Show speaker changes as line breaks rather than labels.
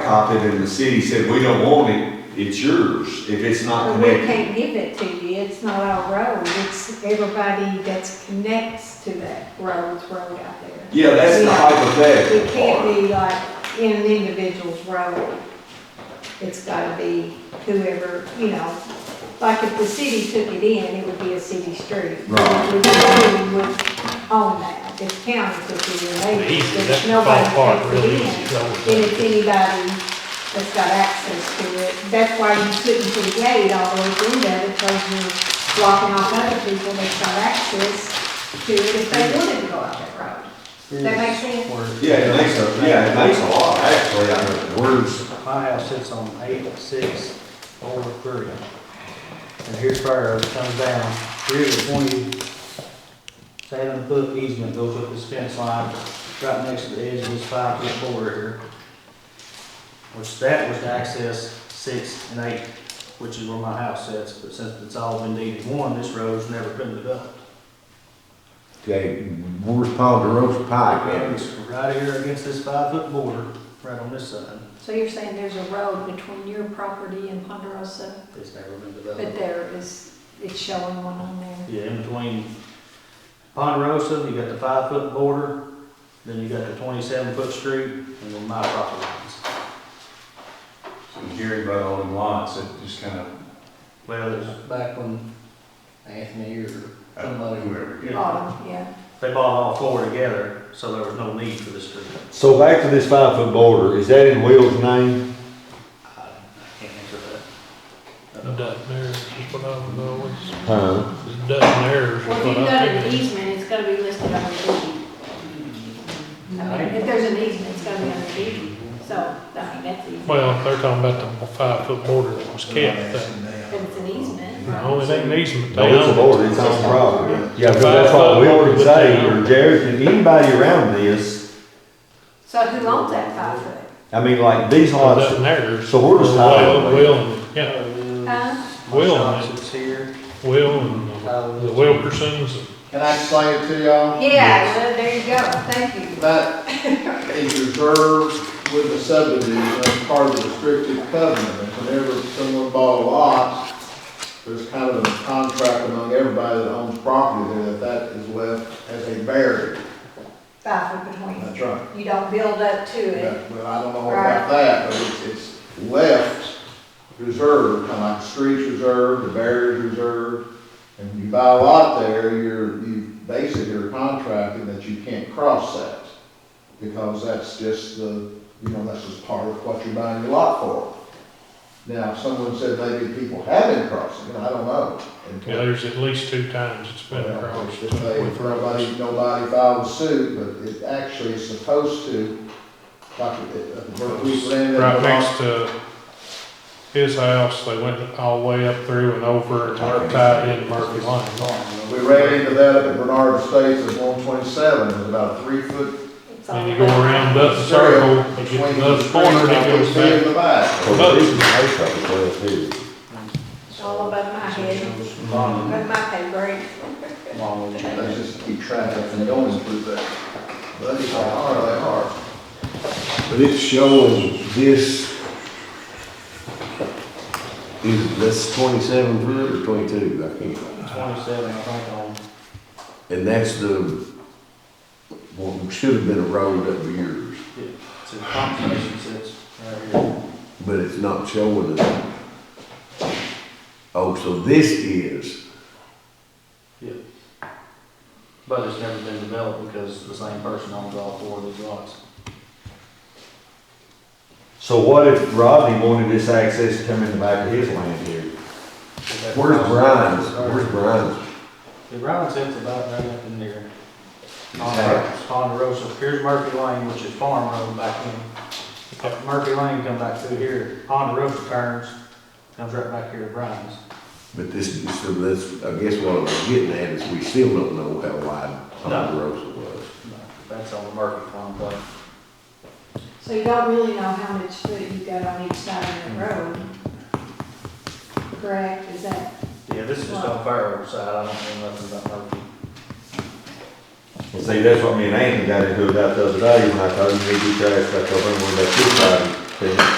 blacktop it and the city said, we don't want it, it's yours if it's not
But we
connected.
can't give it to you, it's not our road, it's everybody that's connects to that road's road out there.
Yeah, that's the
Yeah.
hypothetical
It can't
part.
be like in an individual's road. It's gotta be whoever, you know, like if the city took it in, it would be a city street.
Right.
Which we would own that, if county took it in, they,
Easy, that's
there's
the
nobody
fun part,
that takes
really
it
easy,
in.
is always
And
that.
if anybody that's got access to it, that's why you couldn't put a gate all the way through there, because you're blocking off other people that's got access to it, if they wanted to go out that road. Does That makes sense?
Yeah, it makes a, yeah, it makes a lot, actually, I mean, the words,
My house sits on eight, six, over three. And here's fire, it comes down, three to twenty, seven foot easement goes up this fence line, right next to the edge of this five foot border here. Which that was to access six and eight, which is where my house sits, but since it's all been deeded one, this road's never been developed.
Okay, where's Ponderosa Pike
And
at?
it's right here against this five foot border, right on this side,
So you're saying there's a road between your property and Ponderosa,
it's never been
but
developed.
there is, it's showing one on there.
Yeah, in between Ponderosa, you got the five foot border, then you got the twenty-seven foot street, and then my property lines.
So Gary brought all them lots, it just kind of,
Well, it's back when Anthony or somebody,
whoever, you know.
Autumn, yeah.
they bought all four together, so there was no need for this street.
So back to this five foot border, is that in Will's name?
I I can't answer
Dutton errors is what I was always,
Huh?
Dutton errors is
Well, if you've
what
got
I
an
figured.
easement, it's gotta be listed on the deed. I mean, if there's an easement, it's gotta be on the deed, so, I mean, that's easy.
Well, they're talking about the five foot border that was kept, that,
But it's an easement.
no, it ain't an easement, they
No, it's a
own it.
border, it's on property. Yeah, because that's what Will would say, or Jared, and anybody around this,
So who owns that five foot?
I mean, like these lots,
Dutton errors.
So where does Tyler live?
Will- Will, and- yeah,
that.
Huh?
Will, and-
Shops is here.
Will and the Wilkersons, and
Can I explain it to y'all?
Yeah, well, there you go, thank you.
That is reserved with the subdivision, that's part of the restrictive covenant. And Whenever someone bought a lot, there's kind of a contract among everybody that owns property there that that is left as a barrier.
Five foot between.
That's right.
You don't build up to it.
Well, I don't know about that, but it's, it's left reserved, kind of like the streets reserved, the barriers reserved. And you buy a lot there, you're, you basically are contracting that you can't cross that. Because that's just the, you know, that's just part of what you're buying your lot for. Now, someone said maybe people have been crossing, it. I don't know.
yeah, there's at least two times it's been
Well,
across.
If they, if nobody, nobody filed suit, but it actually is supposed to, like, it, uh, where we land in
Right
the law-
next to his house, they went all the way up through and over and are tied in Murphy Lane.
We ran into that at Bernard Estates at one twenty-seven, it was about a three-foot
It's all
And you go around that
trail
circle, and
between
get to
the
another
street,
corner, and
I
it goes
could see in
back.
the back.
so this is their property, well, too.
It's all above my head,
Long,
above my pay grade.
long.
They just keep track of it going through that. But they are, they are.
But it's showing this is, that's twenty-seven foot or twenty-two, I can't.
Twenty-seven, I think, on
And that's the, what should have been a road up years,
to conservation sits right here.
but it's not showing it. Oh, so this is,
But it's never been developed because the same person owns all four of these lots.
so what if Rodney wanted this access to come in the back of his land here? Where's Brian's, where's Brian's?
The Brown sits about right up in there.
Exactly.
Ponderosa, here's Murphy Lane, which is farm road back in. If Murphy Lane come back through here, Ponderosa turns, comes right back here to Brown's.
But this, this, this, I guess what I'm getting at is we still don't know how wide Ponderosa was.
That's on the Murphy farm plate.
So you don't really know how much foot you got on each side of the road. Correct, is that?
Yeah, this is just on Fairhope side, I don't know nothing about Murphy.
Well, see, that's what me and Anthony got into about the other day, when I told him he'd be trash back over and we got two side, and